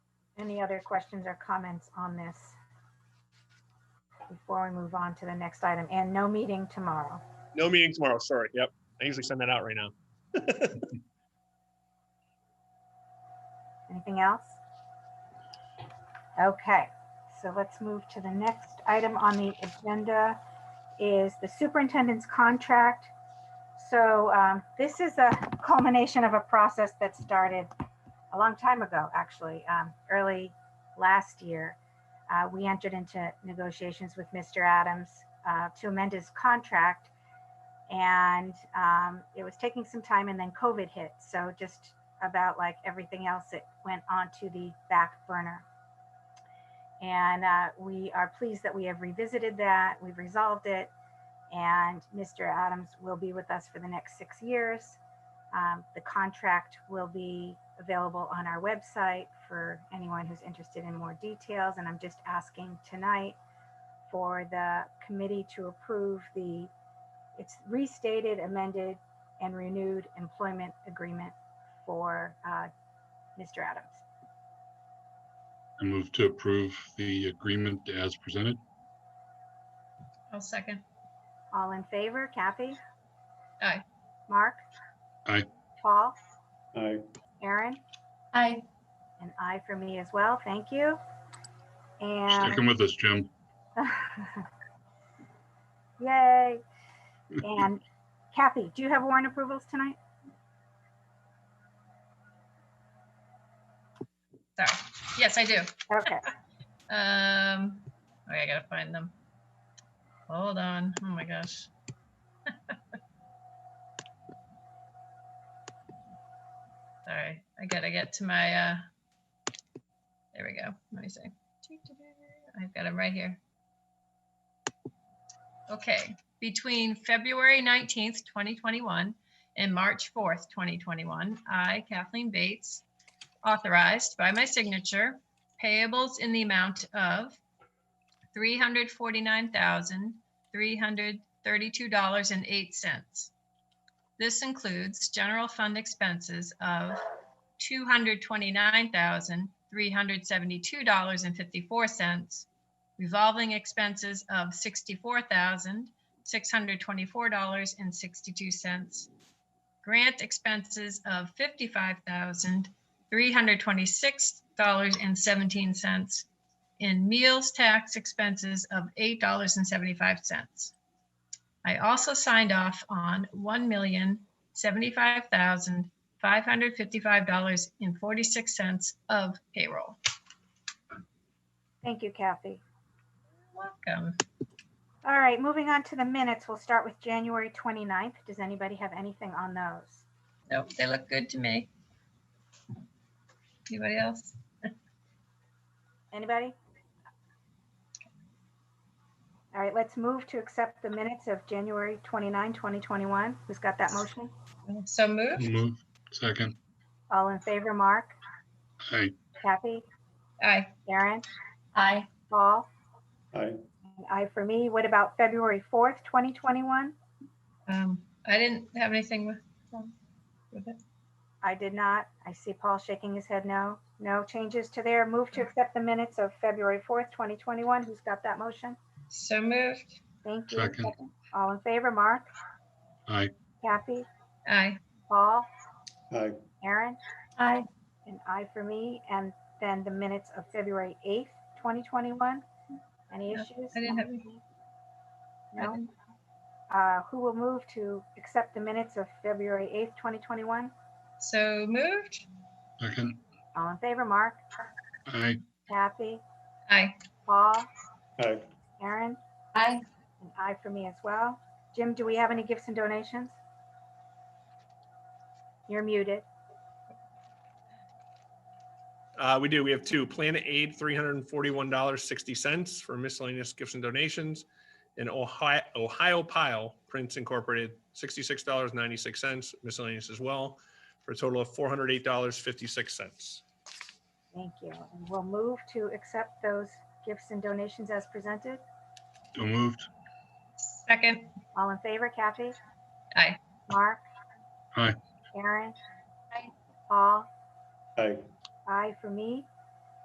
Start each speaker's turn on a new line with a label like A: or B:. A: Any other questions or comments on this? Before we move on to the next item, and no meeting tomorrow.
B: No meeting tomorrow, sorry. Yep. I usually send that out right now.
A: Anything else? Okay, so let's move to the next item on the agenda is the superintendent's contract. So um, this is a culmination of a process that started a long time ago, actually, um, early last year. Uh, We entered into negotiations with Mr. Adams uh, to amend his contract. And um, it was taking some time and then COVID hit. So just about like everything else it went onto the back burner. And uh, we are pleased that we have revisited that, we've resolved it, and Mr. Adams will be with us for the next six years. Um, the contract will be available on our website for anyone who's interested in more details. And I'm just asking tonight for the committee to approve the, it's restated, amended, and renewed employment agreement for uh, Mr. Adams.
C: I move to approve the agreement as presented.
D: I'll second.
A: All in favor, Kathy?
D: Aye.
A: Mark?
C: Aye.
A: Paul?
E: Aye.
A: Aaron?
D: Aye.
A: An aye for me as well, thank you.
C: Stick 'em
A: And
C: with us, Jim.
A: yay. And Kathy, do you have warrant approvals tonight?
D: Sorry. Yes, I do.
A: Okay,
D: Um, okay, I gotta find them. Hold on. Oh my gosh. Sorry, I gotta get to my, uh, there we go. Let me see. I've got them right here. Okay, between February 19th, 2021 and March 4th, 2021, I, Kathleen Bates, authorized by my signature payables in the amount of three hundred forty-nine thousand, three hundred thirty-two dollars and eight cents. This includes general fund expenses of two hundred twenty-nine thousand, three hundred seventy-two dollars and fifty-four cents, revolving expenses of sixty-four thousand, six hundred twenty-four dollars and sixty-two cents, grant expenses of fifty-five thousand, $326.17 in meals tax expenses of $8.75. I also signed off on $1,075,555.46 of payroll.
A: thank you, Kathy.
D: Welcome.
A: All right, moving on to the minutes, we'll start with January 29th. Does anybody have anything on those?
D: Nope, they look good to me. Anybody else?
A: Anybody? All right, let's move to accept the minutes of January 29, 2021. Who's got that motion?
D: So moved?
C: Move, second.
A: All in favor, Mark,
C: Aye.
A: Kathy,
D: Aye.
A: Aaron,
D: Aye.
A: Paul?
E: Aye.
A: An aye for me. What about February 4th, 2021?
D: Um, I didn't have anything with with it.
A: I did not. I see Paul shaking his head no. No changes to there. Move to accept the minutes of February 4th, 2021. Who's got that motion?
D: So moved.
A: Thank you.
C: Second.
A: All in favor, Mark,
C: Aye.
A: Kathy,
D: Aye.
A: Paul,
E: Aye.
A: Aaron?
D: Aye.
A: An aye for me, and then the minutes of February 8th, 2021. Any
D: No,
A: issues?
D: I didn't have any. I
A: No?
D: didn't-
A: Uh, Who will move to accept the minutes of February 8th, 2021?
D: So moved?
C: Second.
A: All in favor, Mark,
C: Aye.
A: Kathy,
D: Aye.
A: Paul,
E: Aye.
A: Aaron?
D: Aye.
A: An aye for me as well. Jim, do we have any gifts and donations? You're muted.
B: Uh, we do. We have two. Planet Aid, three hundred and forty-one dollars sixty cents for miscellaneous gifts and donations. And Ohio, Ohio Pile Prints Incorporated, sixty-six dollars ninety-six cents miscellaneous as well, for a total of four hundred eight dollars fifty-six cents.
A: Thank you. And We'll move to accept those gifts and donations as presented.
C: So moved.
D: Second?
A: All in favor, Kathy?
D: Aye.
A: Mark?
C: Aye.
A: Aaron?
D: Aye.
A: Paul?
E: Aye.
A: Aye for me.